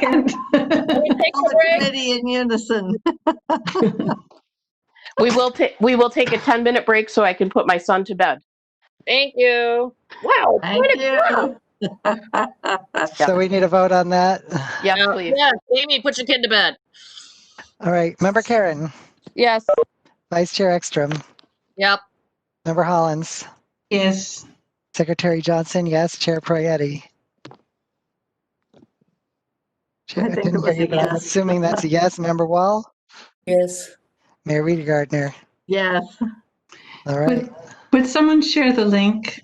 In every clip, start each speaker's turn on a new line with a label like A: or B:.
A: second?
B: Can we take
C: All
B: a
C: the
B: break?
C: committee in unison.
D: We will take we will take a 10 minute break so I can put my son to bed.
B: Thank you. Wow.
C: Thank
B: what a-
C: you.
E: So we need a vote on that.
D: Uh, Yes, please.
B: Yes, Amy, put your kid to bed.
E: All right, member Karen,
D: Yes.
E: Vice Chair Ekstrom,
B: Yep.
E: member Hollins,
A: Yes.
E: Secretary Johnson, yes, Chair Proietti. Chair-
C: I think it
E: didn't hear
C: was a
E: you, but I'm
C: yes.
E: Assuming that's a yes, member Wall,
F: Yes.
E: Mayor Rita Gardner.
C: Yes,
E: All right,
A: Would- Would someone share the link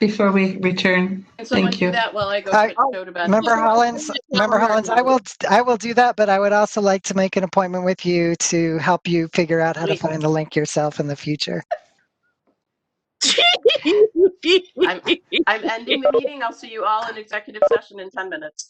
A: before we return?
D: Can someone
A: Thank you.
D: do that while I go
E: I-
D: put Joe to bed?
E: member Hollins, member Hollins, I will, I will do that, but I would also like to make an appointment with you to help you figure out how to
D: Please.
E: find the link yourself in the future.
D: I'm ending the meeting. I'll see you all in executive session in 10 minutes.